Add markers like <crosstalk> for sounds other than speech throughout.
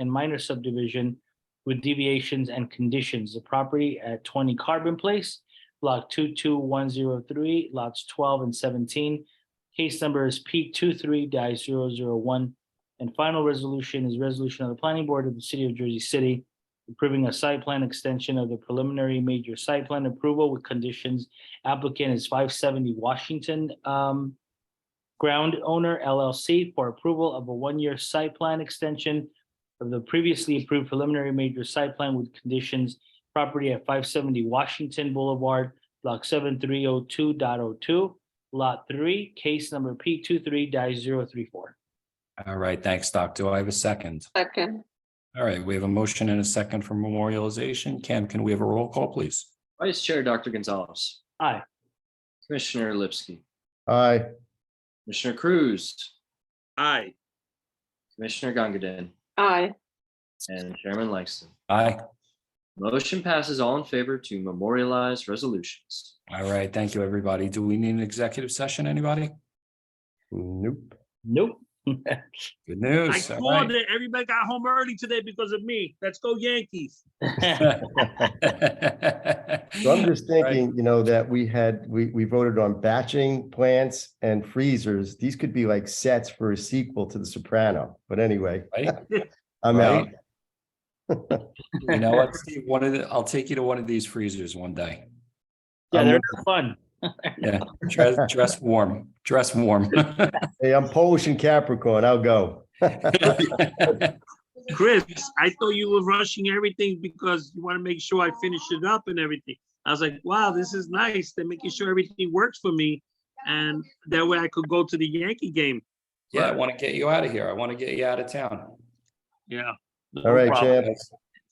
and minor subdivision with deviations and conditions. The property at twenty Carbon Place, block two two one zero three, lots twelve and seventeen. Case number is P 23-001, And final resolution is resolution of the planning board of the city of Jersey City approving a site plan extension of the preliminary major site plan approval with conditions. Applicant is five seventy Washington um, Ground Owner LLC for approval of a one-year site plan extension of the previously approved preliminary major site plan with conditions. Property at five seventy Washington Boulevard, block seven three oh two dot oh two, lot three, case number P 23 All right, thanks, Doc. Do I have a second? Second, All right, we have a motion and a second for memorialization. Cam, can we have a roll call, please? Vice Chair Dr. Gonzalez. Aye. Commissioner Lipsky, aye, Commissioner Cruz, aye, Commissioner Gangadin, aye, and Chairman Langston. Aye. Motion passes all in favor to memorialize resolutions. All right, thank you, everybody. Do we need an executive session, anybody? nope. Nope. Good <laughs> I news. all called right. it. Everybody got home early today because of me. Let's go Yankees. <laughs> So I'm just thinking, you know, that we had, we, we voted on batching plants and freezers. These could be like sets for a sequel to The Soprano, but anyway. Right? <laughs> I'm out. Right? You know what, Steve, one of the, I'll take you to one of these freezers one day. Yeah, I'm- they're fun. Yeah, dress, dress warm, dress warm. <laughs> Hey, I'm Polish and Capricorn. I'll go. Chris, I thought you were rushing everything because you want to make sure I finish it up and everything. I was like, wow, this is nice. They're making sure everything works for me. And that way I could go to the Yankee game. Yeah, I want to get you out of here. I want to get you out of town. Yeah. no All right, problem. champ.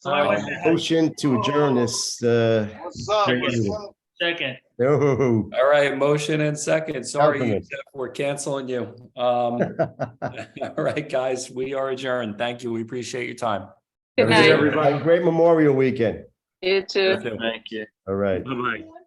So I went ahead. Motion to adjourn this, uh, What's up? What's up? Second. oh, All right, motion and second. Sorry, Compliment. Jeff, we're canceling you. Um, <laughs> all right, guys, we are adjourned. Thank you. We appreciate your time. good Have a good night, everybody. Have a Great Memorial Weekend. you too. You too. Thank you. All right. Bye-bye.